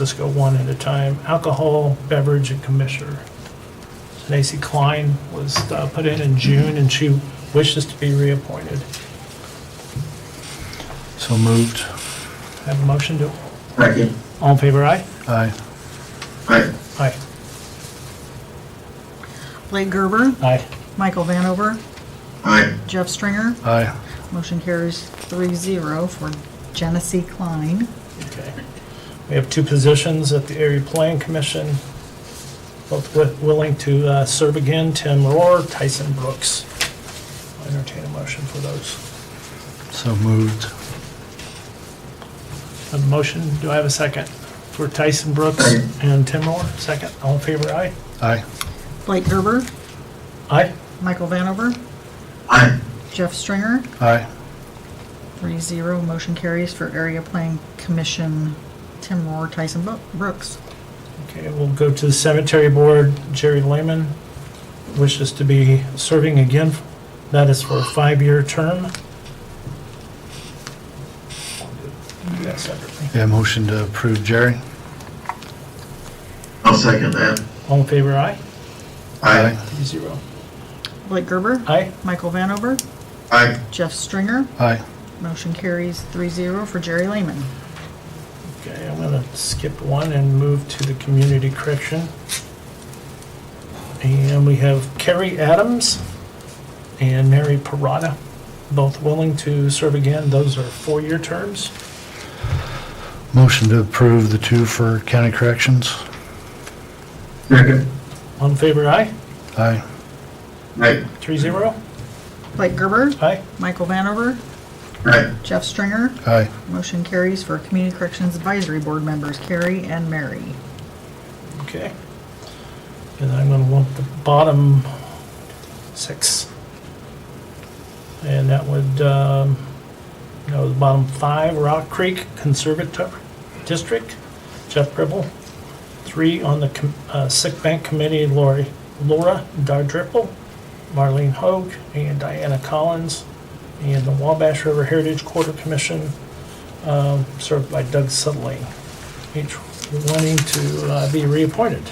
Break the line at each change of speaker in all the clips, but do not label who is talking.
Let's go one at a time. Alcohol, beverage, and commissioner. Nancy Klein was uh, put in in June, and she wishes to be reappointed.
So moved.
Have a motion to,
Second.
all in favor, aye?
Aye.
Aye.
Aye.
Blake Gerber,
Aye.
Michael Vanover,
Aye.
Jeff Stringer.
Aye.
Motion carries three zero for Genesee Klein.
Okay. We have two positions at the Area Plan Commission, both wi- willing to uh, serve again, Tim Rohr, Tyson Brooks. I Entertain a motion for those.
So moved.
A motion, do I have a second? For Tyson Brooks and Tim Rohr, second. All in favor, aye?
Aye.
Blake Gerber,
Aye.
Michael Vanover,
Aye.
Jeff Stringer.
Aye.
Three zero. Motion carries for Area Plan Commission, Tim Rohr, Tyson Bo- Brooks.
Okay, we'll go to the Cemetery Board. Jerry Lehman wishes to be serving again. That is for a five-year term. Yes, separately.
Yeah, motion to approve Jerry.
I'll second that.
All in favor, aye?
Aye.
Three zero.
Blake Gerber,
Aye.
Michael Vanover,
Aye.
Jeff Stringer.
Aye.
Motion carries three zero for Jerry Lehman.
Okay, I'm gonna skip one and move to the community correction. And we have Carrie Adams and Mary Parada, both willing to serve again. Those are four-year terms.
Motion to approve the two for county corrections.
Second.
All in favor, aye?
Aye.
Aye.
Three zero?
Blake Gerber,
Aye?
Michael Vanover,
Aye.
Jeff Stringer.
Aye.
Motion carries for Community Corrections Advisory Board members Carrie and Mary.
Okay. And I'm gonna want the bottom six. And that would, um, no, the bottom five, Rock Creek Conservative District, Jeff Gribble. Three on the com- uh, Sick Bank Committee, Lori, Laura Dardripple, Marlene Hoag, and Diana Collins. And the Wabash River Heritage Quarter Commission, um, served by Doug Sutling each wanting to uh, be reappointed.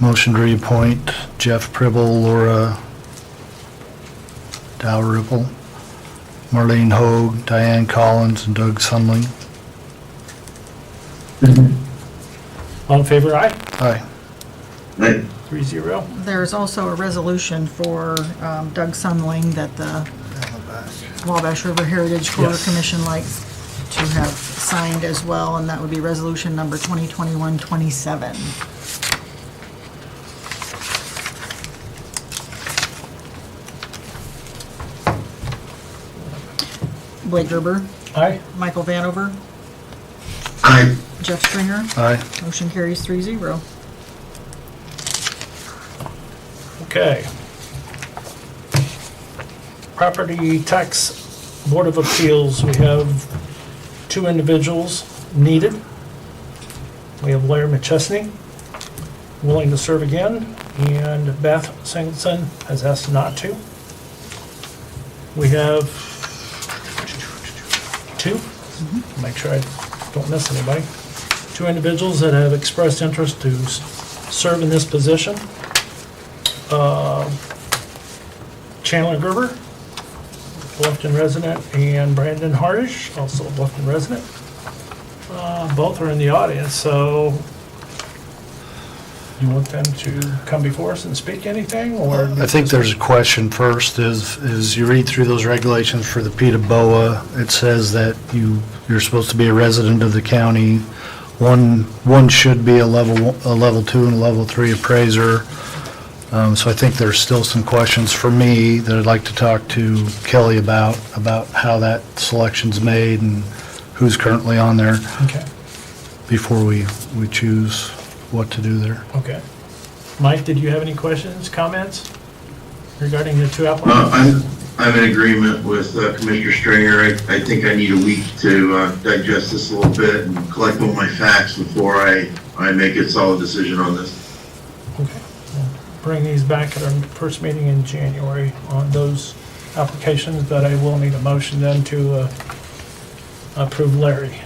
Motion to reappoint Jeff Pribble, Laura Dalrymple, Marlene Hoag, Diane Collins, and Doug Sunling.
All in favor, aye?
Aye.
Aye.
Three zero.
There's also a resolution for um, Doug Sunling that the Wabash River Heritage Corps
Yes.
Commission likes to have signed as well, and that would be resolution number 2021-27. Blake Gerber,
Aye?
Michael Vanover,
Aye.
Jeff Stringer.
Aye.
Motion carries three zero.
Okay. Property Tax Board of Appeals, we have two individuals needed. We have Larry McChesney, willing to serve again, and Beth Singleton has asked not to. We have two, make sure I don't miss anybody, two individuals that have expressed interest to s- serve in this position. Uh, Chandler Gerber, Bluffton resident, and Brandon Hardish, also a Bluffton resident. Uh, Both are in the audience, so you want them to come before us and speak anything, or?
I think there's a question first, is, is you read through those regulations for the PETA BOA, it says that you, you're supposed to be a resident of the county. One, one should be a level, one- a level two and a level three appraiser. Um, so I think there's still some questions for me that I'd like to talk to Kelly about, about how that selection's made and who's currently on there
Okay,
before we, we choose what to do there.
okay. Mike, did you have any questions, comments regarding the two applicants?
Uh, I'm, I'm in agreement with uh, Commissioner Stringer. I, I think I need a week to uh, digest this a little bit and collect all my facts before I, I make a solid decision on this.
Okay, we'll Bring these back at our first meeting in January on those applications, but I will need a motion then to uh, approve Larry.